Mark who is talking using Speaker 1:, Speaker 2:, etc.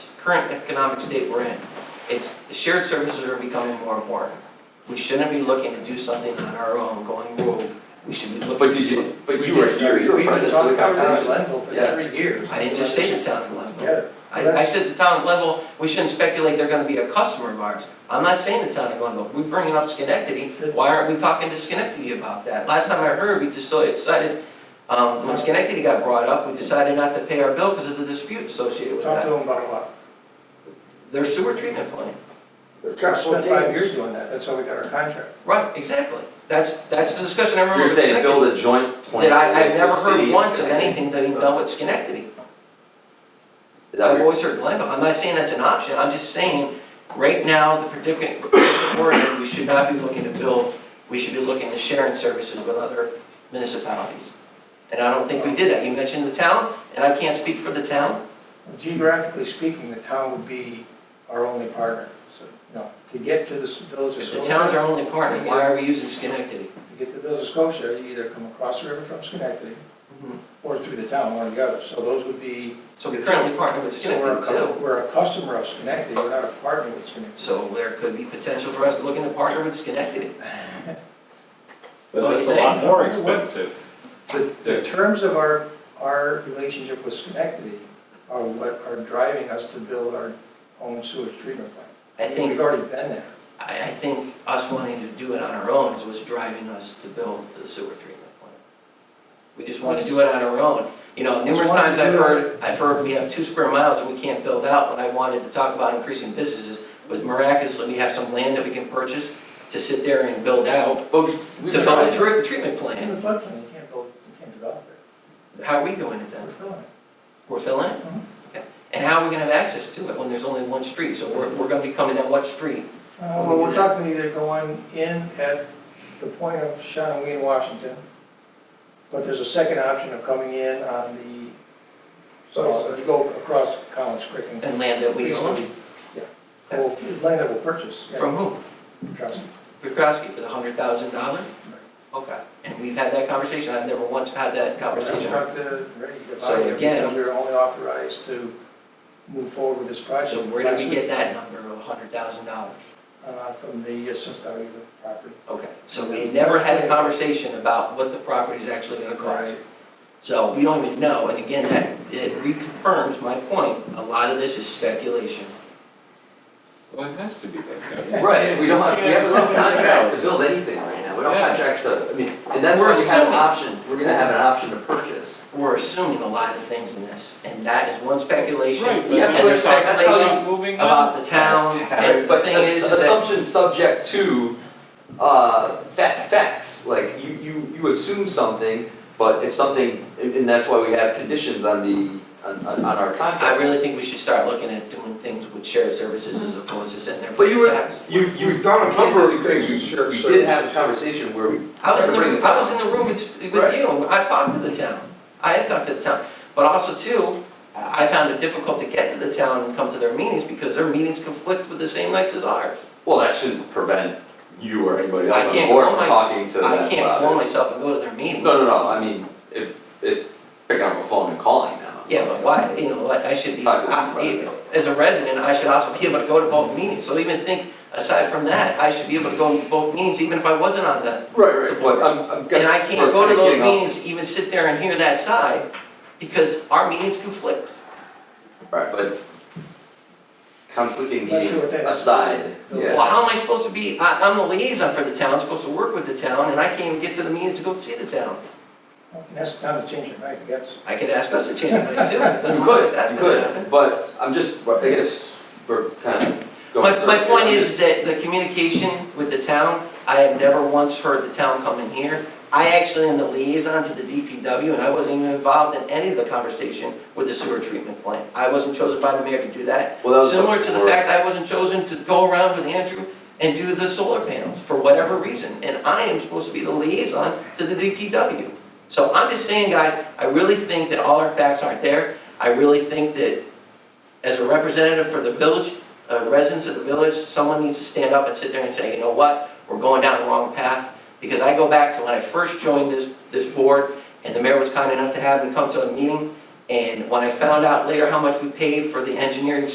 Speaker 1: current economic state we're in, it's, the shared services are becoming more important. We shouldn't be looking to do something on our own, going rogue, we should be looking.
Speaker 2: But did you, but you were here, you were present for the competitions.
Speaker 3: We've been talking about that at Leadville for
Speaker 2: Yeah.
Speaker 3: three years.
Speaker 1: I didn't just say the town of Leadville.
Speaker 3: Yeah,
Speaker 1: I, I said the town of Leadville, we shouldn't speculate they're gonna be a customer of ours. I'm not saying the town of Leadville, we're bringing up Schenectady, why aren't we talking to Schenectady about that? Last time I heard, we just so decided, um, when Schenectady got brought up, we decided not to pay our bill because of the dispute associated with
Speaker 3: talk to
Speaker 1: that.
Speaker 3: them about a lot.
Speaker 1: Their sewer treatment plant.
Speaker 3: We spent five years doing that, that's how we got our contract.
Speaker 1: Right, exactly. That's, that's the discussion I remember
Speaker 2: You're
Speaker 1: with
Speaker 2: saying
Speaker 1: Schenectady.
Speaker 2: build a joint plan.
Speaker 1: That I, I've
Speaker 2: with the
Speaker 1: never
Speaker 2: city
Speaker 1: heard once of
Speaker 2: Schenectady.
Speaker 1: anything being done with Schenectady.
Speaker 2: Is that
Speaker 1: I've
Speaker 2: what
Speaker 1: always heard Glenville, I'm not saying that's an option, I'm just saying, right now, the predicament we're in, we should not be looking to build, we should be looking to sharing services with other municipalities. And I don't think we did that, you mentioned the town, and I can't speak for the town,
Speaker 3: Geographically speaking, the town would be our only partner, so, no, to get to this village of
Speaker 1: if the
Speaker 3: Scotia.
Speaker 1: town's our only partner, why are we using Schenectady?
Speaker 3: To get to the village of Scotia, you either come across the river from Schenectady or through the town, one or the other, so those would be.
Speaker 1: So we currently partner with
Speaker 3: so we're a
Speaker 1: Schenectady
Speaker 3: cu-
Speaker 1: too,
Speaker 3: We're a customer of Schenectady, we're not a partner with Schenectady.
Speaker 1: so there could be potential for us looking to partner with Schenectady.
Speaker 4: But
Speaker 1: Well,
Speaker 4: that's
Speaker 1: you
Speaker 4: a lot
Speaker 1: think-
Speaker 4: more expensive.
Speaker 3: The, the terms of our, our relationship with Schenectady are what are driving us to build our own sewage treatment plant.
Speaker 1: I think
Speaker 3: We've already been there.
Speaker 1: I, I think us wanting to do it on our own is what's driving us to build the sewer treatment plant. We just want to do it on our own. You know, numerous
Speaker 3: Just wanted
Speaker 1: times
Speaker 3: to
Speaker 1: I've
Speaker 3: do it.
Speaker 1: heard, I've heard we have two square miles and we can't build out. When I wanted to talk about increasing businesses, was miraculously, we have some land that we can purchase to sit there and build out,
Speaker 2: Well, we-
Speaker 1: to
Speaker 2: we
Speaker 1: build
Speaker 2: tried.
Speaker 1: a tre- treatment
Speaker 3: It's in
Speaker 1: plant.
Speaker 3: the floodplain, you can't build, you can't develop it.
Speaker 1: How are we doing it
Speaker 3: We're
Speaker 1: then?
Speaker 3: filling it.
Speaker 1: We're filling it?
Speaker 3: Mhm.
Speaker 1: Okay. And how are we gonna have access to it when there's only one street? So we're, we're gonna be coming down one street.
Speaker 3: Uh, Well, we're talking either going in at the point of Shawnee and Washington, but there's a second option of coming in on the, uh, so you go across Collins Creek and.
Speaker 1: And land that we own,
Speaker 3: Yeah, well, land that we'll purchase. yeah,
Speaker 1: from whom?
Speaker 3: trust me.
Speaker 1: Bukowski for the hundred thousand dollar? Okay. And we've had that conversation, I've never once had that
Speaker 3: We're
Speaker 1: conversation.
Speaker 3: not to ready to
Speaker 1: So
Speaker 3: buy it,
Speaker 1: again-
Speaker 3: because we're only authorized to move forward with this project.
Speaker 1: So where did we
Speaker 3: last
Speaker 1: get that number of hundred thousand dollars?
Speaker 3: week, uh, From the assessor of the property.
Speaker 1: Okay, so we never had a conversation about what the property is actually gonna cost. So we don't even know, and again, that, it reconfirms my point, a lot of this is speculation.
Speaker 4: Well, it has to be that guy.
Speaker 2: Right, we don't have, we have enough contracts to build anything right now, we don't have
Speaker 4: Yeah.
Speaker 2: contracts to, I mean, and that's
Speaker 1: We're
Speaker 2: why we have an
Speaker 1: assuming-
Speaker 2: option, we're gonna have an option to purchase.
Speaker 1: We're assuming a lot of things in this, and that is one speculation.
Speaker 4: Right, but
Speaker 2: Yeah,
Speaker 1: And
Speaker 4: that's
Speaker 1: the
Speaker 2: that's how- that's how
Speaker 1: speculation
Speaker 4: moving on.
Speaker 1: about the town, and the
Speaker 2: But
Speaker 1: thing is
Speaker 2: ass-
Speaker 1: is that,
Speaker 2: assumptions subject to, uh, fa- facts, like, you, you, you assume something, but if something, and, and that's why we have conditions on the, on, on on our contracts.
Speaker 1: I really think we should start looking at doing things with shared services as opposed to sitting there
Speaker 2: But you
Speaker 1: paying
Speaker 2: were,
Speaker 1: tax.
Speaker 2: you've, you've.
Speaker 5: We've done a
Speaker 2: can't
Speaker 5: number of
Speaker 2: disagree.
Speaker 5: things in shared
Speaker 2: We did have a
Speaker 5: services.
Speaker 2: conversation where we.
Speaker 1: I was in the,
Speaker 2: Bring it
Speaker 1: I was in
Speaker 2: down.
Speaker 1: the room with, with
Speaker 2: Right.
Speaker 1: you, and I've talked to the town, I have talked to the town, but also too, I found it difficult to get to the town and come to their meetings, because their meetings conflict with the same nights as ours.
Speaker 2: Well, that shouldn't prevent you or anybody
Speaker 1: I
Speaker 2: else on the
Speaker 1: can't
Speaker 2: board
Speaker 1: call
Speaker 2: from
Speaker 1: mys-
Speaker 2: talking to them about it.
Speaker 1: I can't call myself and go to their meetings.
Speaker 2: No, no, no, I mean, if, it's picking up a phone and calling now.
Speaker 1: Yeah, but why, you know, what I should be,
Speaker 2: Talk to
Speaker 1: I-
Speaker 2: somebody.
Speaker 1: as a resident, I should also be able to go to both meetings, so even think, aside from that, I should be able to go to both meetings, even if I wasn't on the
Speaker 2: Right, right, but I'm, I'm guessing.
Speaker 1: And I can't
Speaker 2: we're
Speaker 1: go to
Speaker 2: kinda
Speaker 1: those
Speaker 2: getting off-
Speaker 1: meetings, even sit there and hear that side, because our meetings conflict.
Speaker 2: Right, but conflicting
Speaker 3: Not sure
Speaker 2: meetings
Speaker 3: what that is.
Speaker 2: aside, yeah.
Speaker 1: Well, how am I supposed to be, I, I'm the liaison for the town, supposed to work with the town, and I can't even get to the meetings to go see the town.
Speaker 3: Well, That's the time to change it, right, I guess.
Speaker 1: I could ask us to change it too, doesn't
Speaker 2: You
Speaker 1: matter,
Speaker 2: could,
Speaker 1: that's
Speaker 2: you
Speaker 1: gonna happen.
Speaker 2: could, but I'm just, I guess, we're kind of going.
Speaker 1: My, my
Speaker 2: through it.
Speaker 1: point is that the communication with the town, I have never once heard the town come in here. I actually am the liaison to the DPW, and I wasn't even involved in any of the conversation with the sewer treatment plant. I wasn't chosen by the mayor to do that,
Speaker 2: Well, that was
Speaker 1: Similar to the
Speaker 2: before-
Speaker 1: fact I wasn't chosen to go around with Andrew and do the solar panels for whatever reason. And I am supposed to be the liaison to the DPW. So I'm just saying, guys, I really think that all our facts aren't there. I really think that as a representative for the village, uh, residents of the village, someone needs to stand up and sit there and say, you know what? We're going down the wrong path. Because I go back to when I first joined this, this board and the mayor was kind enough to have me come to a meeting. And when I found out later how much we paid for the engineering